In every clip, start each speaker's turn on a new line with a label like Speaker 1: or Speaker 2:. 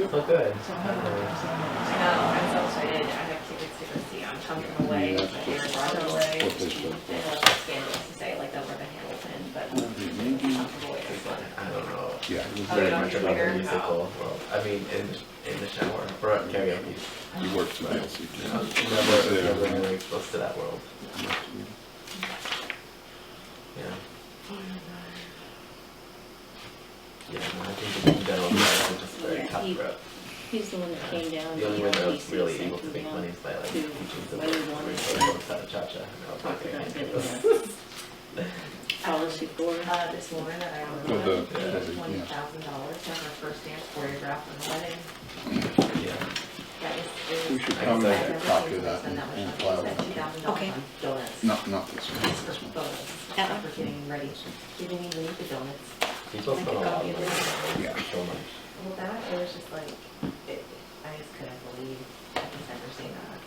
Speaker 1: Oh, good.
Speaker 2: So I have another percent.
Speaker 3: No, I'm so excited, I have kids to go see, I'm chunking away,
Speaker 4: Yeah,
Speaker 3: and
Speaker 4: that's
Speaker 3: Aaron
Speaker 4: what-
Speaker 3: Rodgers away.
Speaker 4: what they said.
Speaker 3: I know it's scandalous to say, like, they'll work at Hamilton, but
Speaker 4: Mm-hmm.
Speaker 3: I'm chunking away this one.
Speaker 1: I don't know
Speaker 4: Yeah.
Speaker 1: very
Speaker 3: don't
Speaker 1: much
Speaker 3: hear
Speaker 1: about the
Speaker 3: her?
Speaker 1: musical. Well, I mean, in, in the shower, or at karaoke.
Speaker 4: You worked for the
Speaker 1: I
Speaker 4: LCT.
Speaker 1: was Never, never really exposed to that world, you know? Yeah, no, I think in general, it's just very
Speaker 5: Yeah, he-
Speaker 1: cutthroat.
Speaker 5: He's the one that came down.
Speaker 1: The only way
Speaker 5: to
Speaker 1: that I
Speaker 5: the
Speaker 1: was really
Speaker 5: LDC
Speaker 1: able to make
Speaker 5: second
Speaker 1: money is by like
Speaker 5: to
Speaker 1: teaching somebody
Speaker 5: why they
Speaker 1: to
Speaker 5: wanted
Speaker 1: read
Speaker 5: to
Speaker 1: books out of cha-cha. and I was like,
Speaker 5: Talk about
Speaker 1: okay.
Speaker 5: getting a policy for.
Speaker 3: Uh, this woman that I
Speaker 4: Oh,
Speaker 3: don't know,
Speaker 4: the-
Speaker 3: paid
Speaker 4: yeah.
Speaker 3: twenty thousand dollars to have her first dance choreographed on the wedding,
Speaker 1: Yeah.
Speaker 3: that was, it
Speaker 4: We
Speaker 3: was.
Speaker 4: should come
Speaker 3: I've
Speaker 4: and
Speaker 3: never
Speaker 4: copy
Speaker 3: seen
Speaker 4: of that
Speaker 3: someone
Speaker 4: and
Speaker 3: that much
Speaker 4: and
Speaker 3: money.
Speaker 4: file
Speaker 3: She spent
Speaker 4: that.
Speaker 3: $2,000
Speaker 5: Okay.
Speaker 3: on Donuts.
Speaker 4: No, not this one,
Speaker 3: For
Speaker 4: this one.
Speaker 3: donuts,
Speaker 5: That one?
Speaker 3: for getting ready, giving me the donuts.
Speaker 1: People spend a lot of money on
Speaker 4: Yeah.
Speaker 1: that, so much.
Speaker 3: Well, that, it was just like, it, I just couldn't believe I was ever seeing that.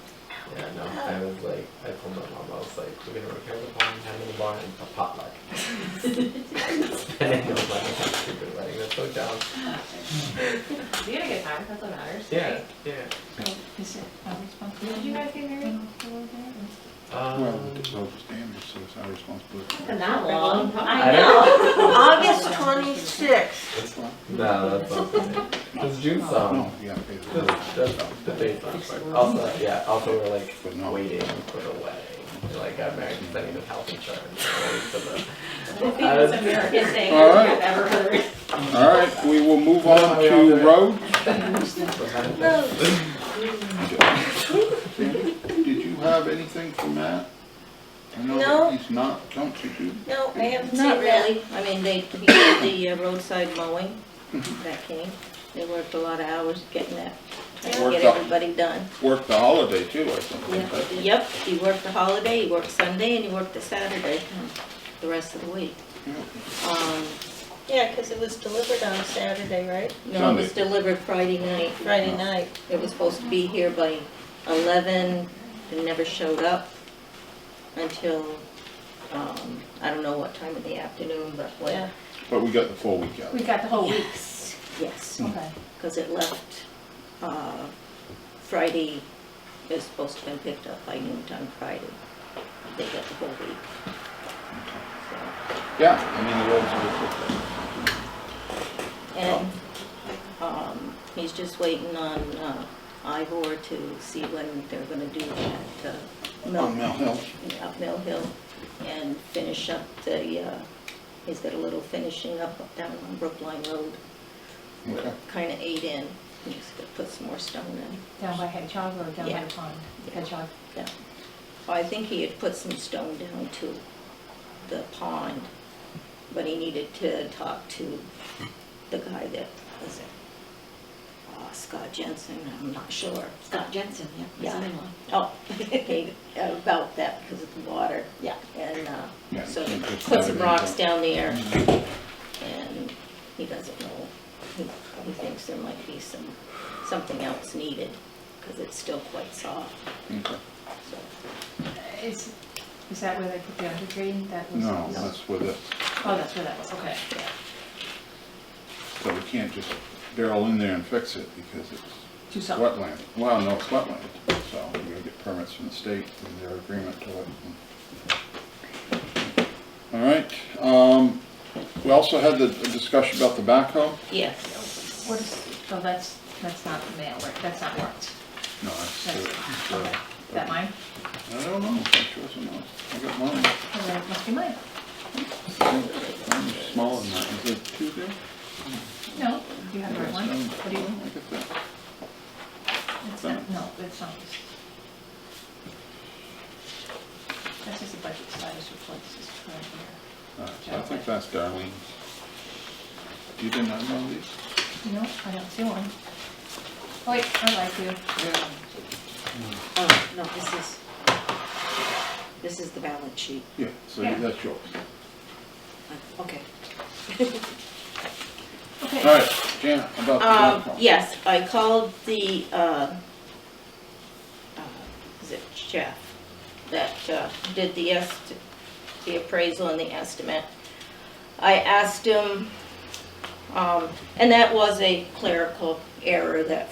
Speaker 1: Yeah, no, I was like, I told my mom, I was like, we're gonna repair the barn, have in the barn, and a potluck. And I was like, that's stupid wedding, that's so dumb.
Speaker 3: You had a good time, that's what matters,
Speaker 1: Yeah,
Speaker 3: right?
Speaker 1: yeah.
Speaker 2: So Is it our responsibility?
Speaker 3: Did you guys get married?
Speaker 2: Mm-hmm.
Speaker 4: Well,
Speaker 1: Um,
Speaker 4: it's over standards, so it's our responsibility.
Speaker 3: Wasn't that long.
Speaker 5: I know. August twenty-sixth.
Speaker 1: no, that's not it. It's June's
Speaker 4: No,
Speaker 1: song.
Speaker 4: you gotta pay the
Speaker 1: That's,
Speaker 4: bills.
Speaker 1: that's the date song. Also, yeah, also we're like
Speaker 4: But no.
Speaker 1: waiting for the wedding. We're, Like, got married, sending the health insurance. waiting for the-
Speaker 3: I think it's the American thing
Speaker 4: All right.
Speaker 3: I've ever heard.
Speaker 4: All right, we will move on to road. Did you have anything for Matt? I know
Speaker 5: No.
Speaker 4: that he's not, don't you do?
Speaker 5: No, I haven't seen
Speaker 2: Not
Speaker 5: really. I mean, they, he did the uh, roadside mowing that came. They worked a lot of hours getting that, trying to
Speaker 4: Worked
Speaker 5: get
Speaker 4: up.
Speaker 5: everybody done.
Speaker 4: Worked the holiday too, I think.
Speaker 5: Yeah,
Speaker 4: but-
Speaker 5: Yep, he worked the holiday, he worked Sunday, and he worked the Saturday, the rest of the week. Um,
Speaker 6: Yeah, because it was delivered on Saturday, right?
Speaker 5: No, it was
Speaker 4: Sunday.
Speaker 5: delivered Friday night.
Speaker 6: Friday night.
Speaker 5: It was supposed to be here by eleven, it never showed up until, um, I don't know what time of the afternoon, but
Speaker 6: Yeah.
Speaker 5: when,
Speaker 4: But we got the full week out.
Speaker 2: We got the whole weeks.
Speaker 5: yes,
Speaker 2: Okay.
Speaker 5: because it left, uh, Friday, it was supposed to have been picked up by noon time Friday. They got the whole week.
Speaker 4: Yeah, I mean, the roads are.
Speaker 5: So, And, um, he's just waiting on, uh, Ivor to see when they're gonna do that, uh, milk.
Speaker 4: On Mel Hill.
Speaker 5: up Mill Hill and finish up the, uh, he's got a little finishing up down on Brookline Road,
Speaker 4: Okay.
Speaker 5: kind of ate in. He's gonna put some more stone in.
Speaker 2: Down by Hedgehog or down by
Speaker 5: Yeah.
Speaker 2: the pond?
Speaker 5: Yeah.
Speaker 2: Hedgehog.
Speaker 5: Yeah. I think he had put some stone down to the pond, but he needed to talk to the guy that was it. Uh, Scott Jensen, I'm not sure.
Speaker 7: Scott Jensen, yeah,
Speaker 5: Yeah.
Speaker 7: his in-law.
Speaker 5: Oh, okay, about that because of the water. Yeah. And, uh,
Speaker 4: Yeah,
Speaker 5: so
Speaker 4: you
Speaker 5: he
Speaker 4: just
Speaker 5: put
Speaker 4: gotta
Speaker 5: some
Speaker 4: do
Speaker 5: rocks
Speaker 4: that.
Speaker 5: down there
Speaker 4: Mm-hmm.
Speaker 5: and he doesn't know. He he thinks there might be some, something else needed because it's still quite soft,
Speaker 4: Okay.
Speaker 5: so.
Speaker 2: Is, is that where they put the undergreen? That was.
Speaker 4: No, that's with it.
Speaker 2: Oh, that's where that was, okay.
Speaker 5: yeah.
Speaker 4: So we can't just barrel in there and fix it because it's
Speaker 2: Do something.
Speaker 4: wetland. Well, no, it's wetland, so we gotta get permits from the state and their agreement to it. All right, um, we also had the discussion about the backhoe.
Speaker 5: Yes,
Speaker 2: What is, oh, that's, that's not the mail, right? That's not marked.
Speaker 4: No, that's,
Speaker 2: That's,
Speaker 4: uh,
Speaker 2: okay. Is that mine?
Speaker 4: I don't know, that's yours or not. I got mine.
Speaker 2: Oh, that must be mine.
Speaker 4: Mine's smaller than that. Is it two there?
Speaker 2: No, do you have the right one?
Speaker 4: Um,
Speaker 2: What do you,
Speaker 4: I got that.
Speaker 2: it's not, no, it's not this. That's just a budget status report, this is right here.
Speaker 4: All right, so I think that's Darlene's. You didn't have one of these?
Speaker 2: No, I don't see one. Oh, wait, I like you.
Speaker 4: Yeah.
Speaker 7: Oh, no, this is, this is the balance sheet.
Speaker 4: Yeah, so
Speaker 2: Yeah.
Speaker 4: that's yours.
Speaker 7: Okay.
Speaker 2: Okay.
Speaker 4: All right, Janet, about the
Speaker 5: um,
Speaker 4: backhoe.
Speaker 5: yes, I called the, uh, uh, is it Jeff, that uh, did the est, the appraisal and the estimate. I asked him Um, and that was a clerical error that